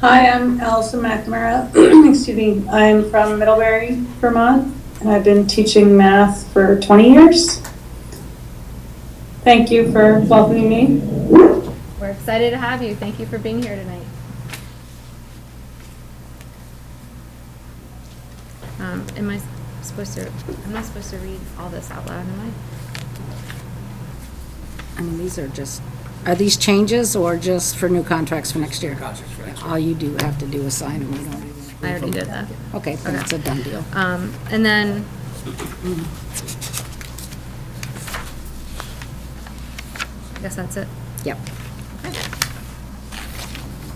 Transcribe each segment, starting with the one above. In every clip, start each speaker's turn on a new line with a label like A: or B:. A: Hi, I'm Allison McNamara. Excuse me. I'm from Middlebury, Vermont, and I've been teaching math for 20 years. Thank you for welcoming me.
B: We're excited to have you. Thank you for being here tonight. Um, am I supposed to, I'm not supposed to read all this out loud, am
C: I mean, these are just, are these changes or just for new contracts for next year?
D: Contracts for next
C: All you do have to do is sign them, we don't even,
B: I? I already did that.
C: okay, then it's a done deal.
B: Um, and then. I guess that's it.
C: Yep.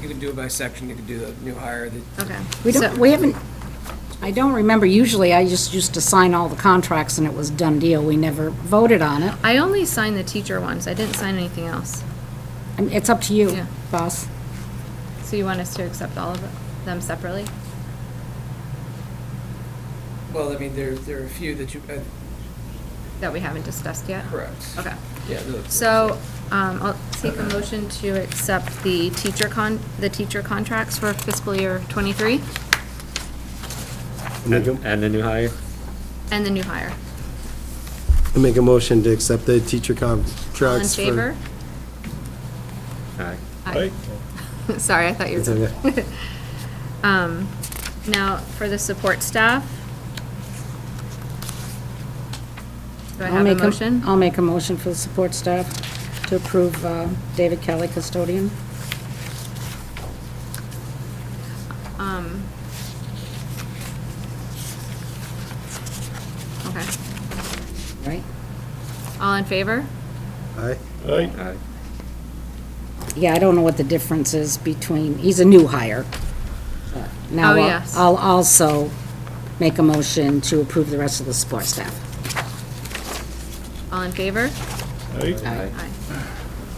D: You can do it by section, you can do the new hire, the
B: Okay.
C: We
B: So-
C: don't, we haven't, I don't remember, usually I just used to sign all the contracts and it was done deal, we never voted on it.
B: I only signed the teacher ones. I didn't sign anything else.
C: I mean, It's up to
B: Yeah.
C: you, boss.
B: So you want us to accept all of them separately?
D: Well, I mean, there, there are a few that you, uh,
B: That we haven't discussed yet?
D: correct.
B: Okay.
D: Yeah. the-
B: So, um, I'll take a motion to accept the teacher con, the teacher contracts for fiscal year twenty-three
E: Make a-
F: And the new hire?
B: and the new hire.
E: I Make a motion to accept the teacher contracts.
B: All in
E: for-
B: favor?
F: Aye.
B: Aye. Sorry, I thought you
E: It's
B: were.
E: okay.
B: Um, now, for the support staff. Do I
C: I'll
B: have a
C: make
B: motion?
C: I'll make a motion for the support staff to approve uh, David Kelly custodian.
B: Um. Okay.
C: Right.
B: All in favor?
E: Aye.
F: Aye.
C: Yeah, I don't know what the difference is between, he's a new hire. but Now,
B: Oh,
C: I'll-
B: yes.
C: I'll also make a motion to approve the rest of the support staff.
B: All in favor?
C: Aye.
B: Aye.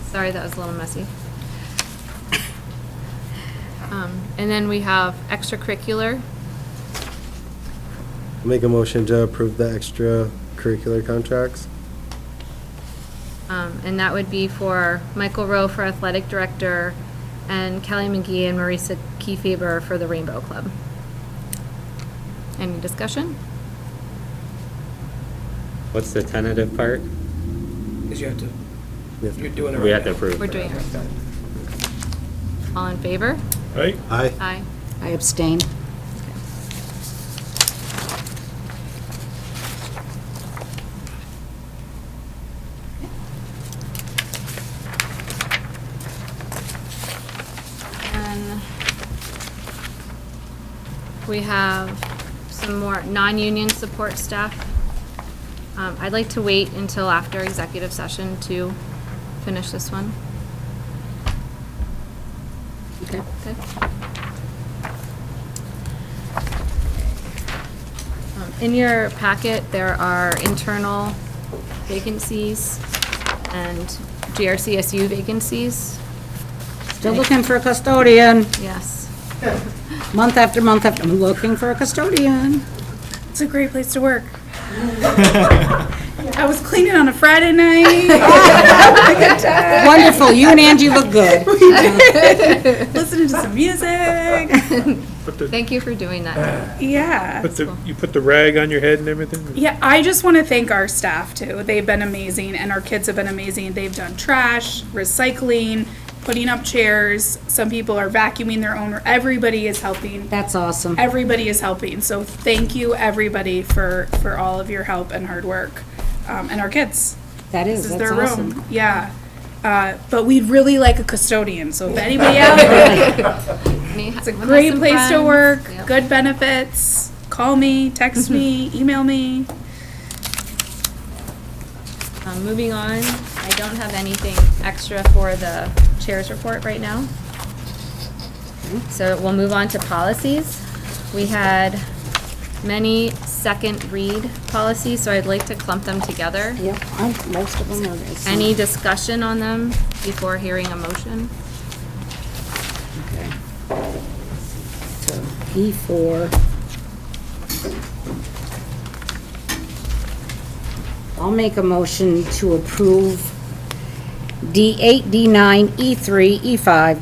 B: Sorry, that was a little messy. Um, And then we have extracurricular.
E: Make a motion to approve the extracurricular contracts.
B: Um, And that would be for Michael Rowe for athletic director and Kelly McGee and Marisa Kefeber for the Rainbow Club. Any discussion?
F: What's the tentative part?
D: Because you have to,
E: We have to-
D: you're doing it.
F: We
D: right
F: have to
D: now.
F: approve.
B: We're doing it. All in favor?
E: Aye.
B: Aye.
C: I abstain.
B: And we have some more non-union support staff. Um, I'd like to wait until after executive session to finish this one.
C: Okay.
B: Okay. Um, In your packet, there are internal vacancies and GRCSU vacancies.
C: Still looking for a custodian,
B: Yes.
C: month after month after, I'm looking for a custodian.
G: It's a great place to work. I was cleaning on a Friday night,
C: Wonderful, you and Angie look good.
G: listening to some music.
H: Put the,
B: Thank you for doing that.
G: Yeah.
H: put the, you put the rag on your head and everything?
G: Yeah, I just want to thank our staff too. They've been amazing and our kids have been amazing. They've done trash, recycling, putting up chairs. Some people are vacuuming their own. Everybody is helping.
C: That's awesome.
G: Everybody is helping. So thank you everybody for for all of your help and hard work um, and our kids.
C: That is,
G: This is
C: that's
G: their
C: awesome.
G: room. Yeah. Uh, but we'd really like a custodian. So if anybody out there
B: It's
G: It's a great place to work, good benefits. Call me, text me, email me.
B: Um, moving on, I don't have anything extra for the chair's report right now. So we'll move on to policies. We had many second read policies, so I'd like to clump them together.
C: Yep, I'm- most of them are.
B: Any discussion on them before hearing a motion?
C: Okay. So E4. I'll make a E motion to approve D8, D9, E3, E5,